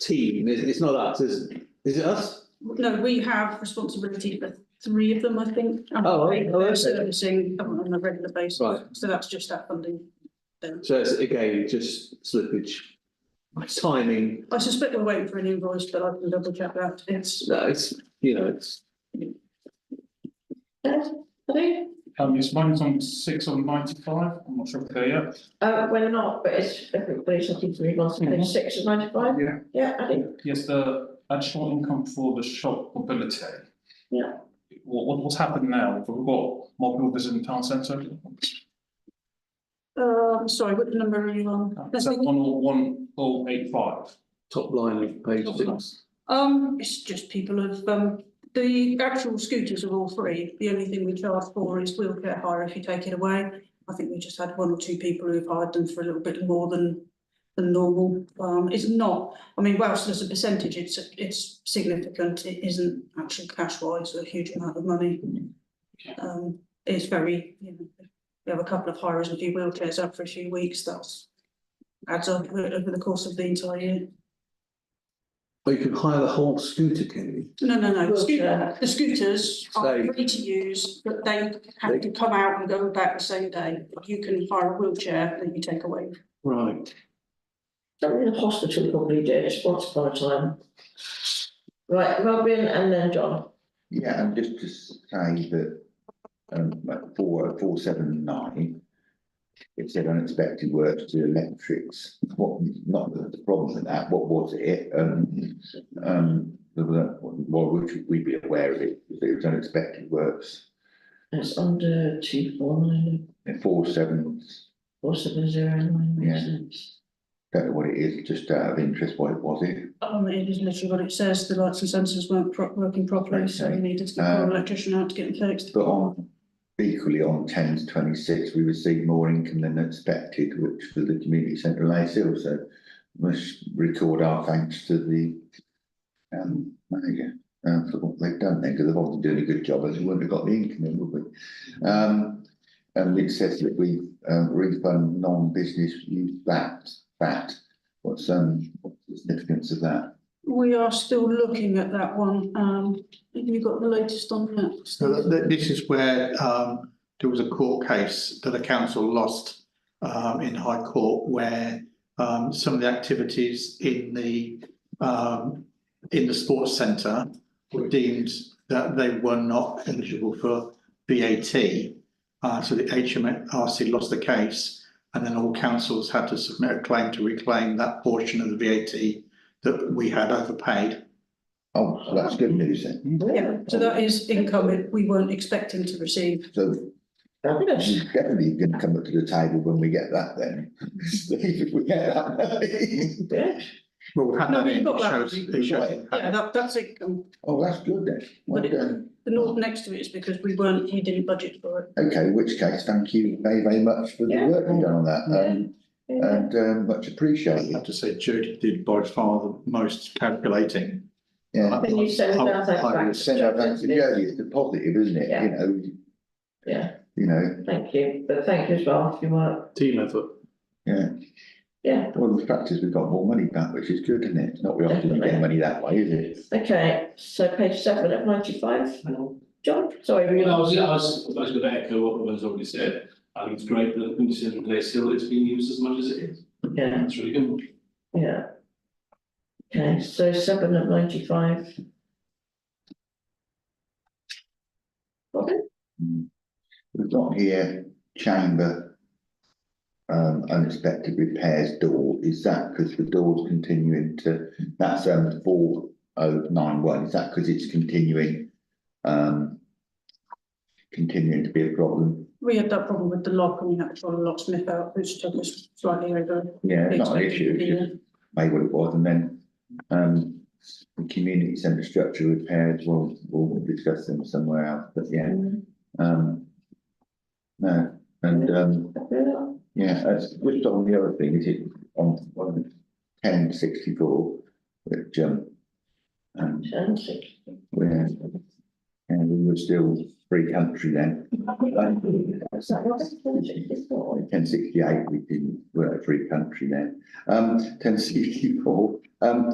team, it's, it's not us, is, is it us? No, we have responsibility for three of them, I think. and Oh, right. Oh, They're okay. servicing on a regular basis, Right. so that's just our funding. Um, then. So it's again, just slippage, timing, I suspect we're waiting for an invoice, but I can double check that. It's, no, uh, it's, you know, it's, I think, Um, it's mine's on six on ninety-five, I'm not sure if they're yet. uh, well, not, but it's, everybody's looking to read last Mm-hmm. page six of ninety-five, Yeah. yeah, I think, Yes, the additional income for the shop mobility. Yeah. What, what, what's happened now, we've got more people visiting town centre? um, sorry, what number are you on? Is that one oh one oh eight five? top line of page six. Um, it's just people have, um, the actual scooters are all free. The only thing we charge for is wheelchair hire if you take it away. I think we just had one or two people who've hired them for a little bit more than, than normal. Um, it's not, I mean, whilst as a percentage, it's, it's significant. It isn't actually cash wise a huge amount of money. Um, it's very, you know, if you have a couple of hires and a few wheelchairs up for a few weeks, that's adds up over the course of the entire year. But Oh, you can hire the whole scooter, can you? No, no, no, Wheelchair. Scoot- the scooters are They- free to use, but they They- have to come out and go back the same day. You can hire a wheelchair that you take away. Right, something the hospital probably did once upon a time. Right, Robin and then John, Yeah, and just to say that, um, at four, four, seven, nine. It said unexpected works to electrics, what, not the the problem with that, what was it? Um, um, there was a- well, would we be aware of it, if it was unexpected works, it's under two four nine, four, seven, four seven zero nine, makes Yeah. sense. don't know what it is, just out of interest, what it was it? Um, it is literally what it says, the lights and sensors weren't pro- working properly, so we Okay. needed to call Um, an Uh, electrician out to get them fixed. But on, equally on ten to twenty-six, we received more income than expected, which for the community centre of Lace Hill, so must record our thanks to the um, manager, um, for what they've done there, because they've obviously done a good job, as we wouldn't have got the income in, would we? Um, and it says that we, um, refund non-business use VAT, VAT, what's, um, what's the significance of that? We are still looking at that one. Um, have you got the latest on that? So that, that- this is where, um, there was a court case that a council lost, um, in High Court where, um, some of the activities in the, um, in the sports centre were deemed that they were not eligible for VAT. Uh, so the HMRC lost the case and then all councils had to submit a claim to reclaim that portion of the VAT that we had overpaid. Oh, so that's good news then, Yeah, so that is income that we weren't expecting to receive. so Fabulous. She's definitely gonna come up to the table when we get that then. If we get that. Yeah. Well, we had No, that we've in, got it that. shows, it shows. Yeah, that, that's income. Oh, that's good then. Well But it- done. The note next to it is because we weren't, we didn't budget for it. Okay, in which case, thank you very, very much for the Yeah. work you've done on that, um, Yeah. and, um, much I have appreciated, to say Judy did by far the most calculating. yeah. Can you send I'll- our thanks I will back to Send our thanks to John? Jodie, it's a positive, isn't it, Yeah. you know, Yeah, you know, thank you, but thank you as well for your work, team effort. yeah. yeah, Well, the fact is, we've got more money back, which is good, isn't it, not we often Definitely. get money that way, is it? okay, so page seven of ninety-five, John, sorry, were you? Well, I was, I was, I was gonna echo what Robin's already said. I think it's great that the Quintessential Place Hill is being used as much as it is. Yeah. That's really good. Yeah. Okay, so seven of ninety-five. Robin? Mm. We've got here chamber. Um, unexpected repairs door, is that because the door's continuing to, that's um four oh nine one, is that because it's continuing? Um. Continuing to be a problem, We had that problem with the lock and we had to try and locksmith out, which took us slightly over. yeah, the not an expected issue, it's year. just maybe what it was, and then. Um, the community centre structure repairs, we'll, we'll discuss them somewhere else, but yeah, um. No, and um. Fabiola? Yeah, that's just on the other thing, is it on one ten sixty four, which um. And And six. we're, and we were still free country then. Is that Robin? Ten sixty eight, we didn't, we we're a free country then. Um, ten sixty four, um,